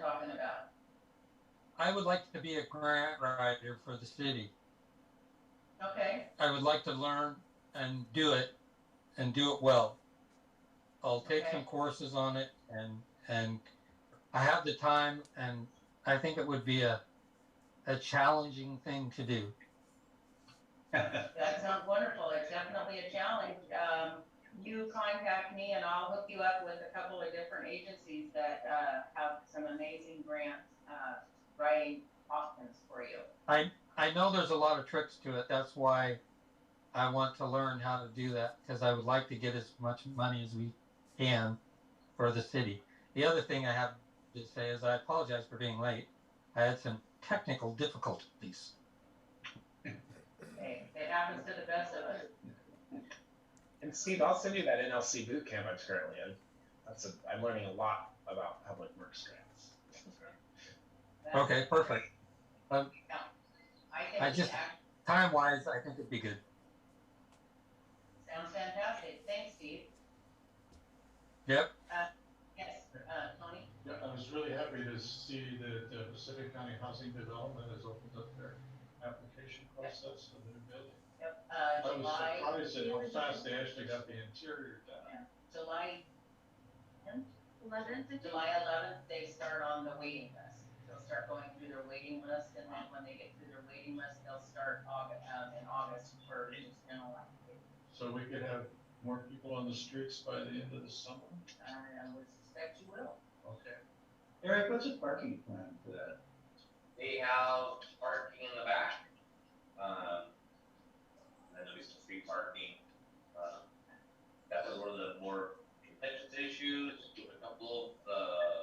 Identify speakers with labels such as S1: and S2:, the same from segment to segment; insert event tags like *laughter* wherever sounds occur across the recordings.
S1: talking about.
S2: I would like to be a grant writer for the city.
S1: Okay,
S2: I would like to learn and do it and do it well. I'll take
S1: Okay.
S2: some courses on it and and I have the time and I think it would be a a challenging thing to do.
S1: that sounds wonderful. It's definitely a challenge. Um, you contact me and I'll hook you up with a couple of different agencies that, uh, have some amazing grants, uh, writing options for you.
S2: I know there's a lot of tricks to it. That's why I want to learn how to do that because I would like to get as much money as we can for the city. The other thing I have to say is I apologize for being late. I had some technical difficulties.
S1: Hey, it happens to the best of us.
S3: And Steve, I'll send you that NLC boot camp I'm currently in. That's a, I'm learning a lot about public works grants.
S1: That's-
S2: Okay, perfect.
S1: I
S2: I
S1: think
S2: just-
S1: that
S2: Time wise, I think it'd be good.
S1: sounds fantastic. Thanks, Steve.
S2: Yep.
S1: Uh, yes, uh, Tony?
S4: Yeah, I was really happy to see that uh, Pacific County Housing Development has opened up their application process for the new building.
S1: Yep, uh,
S4: I
S1: July.
S4: was surprised at how fast they actually got the interior done.
S1: July,
S5: Eleventh,
S1: July eleventh, they start on the waiting list. They'll start going through their waiting list, and then when they get through their waiting list, they'll start August, um, in August for just rental application.
S4: So we could have more people on the streets by the end of the summer?
S1: I would suspect you will.
S4: Okay.
S6: Eric, what's the parking plan for that?
S7: They have parking in the back. Um, and then there's some free parking. Um, that was one of the more contentious issues, a couple of, uh,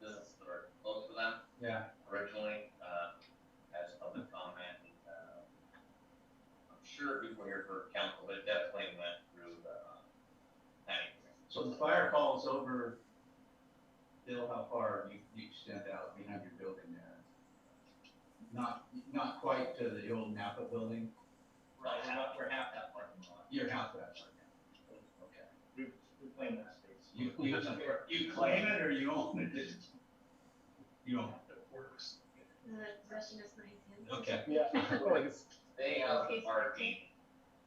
S7: businesses that are close to them
S6: Yeah.
S7: originally, uh, as public comment, and, uh, I'm sure people here for council, but it definitely went through the, um, planning. commission.
S6: So the fire hall's over, Bill, how far you, you extend out behind your building there? Not, not quite to the old Napa building,
S7: Right, we're half, we're half that parking lot.
S6: your house actually. Okay.
S7: We, we claim that space.
S6: You, you, you claim it or you own it? You own
S5: the session is nine ten.
S6: it, okay.
S3: *laughs* Yeah.
S7: They have the parking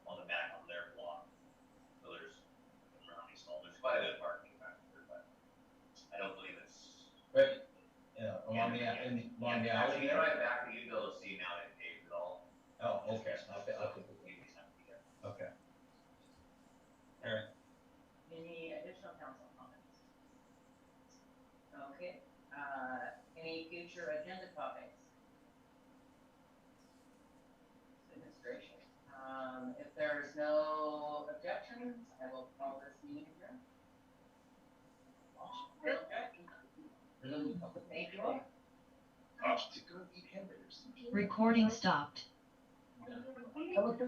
S7: on the back of their block, so there's around these small, there's quite a bit of parking back there, but I don't believe it's.
S6: But, yeah, along the, in the- along the
S7: Yeah,
S6: alley
S7: actually,
S6: there?
S7: Right back, you go see now that paved it all.
S6: Oh, okay, okay, okay, okay.
S1: Any additional council comments? Okay, uh, any future agenda topics? Goodness gracious, um, if there's no objections, I will call this meeting adjourned. Thank you all.
S3: Gosh, to go eat hamburgers.
S8: Recording stopped.
S5: Okay.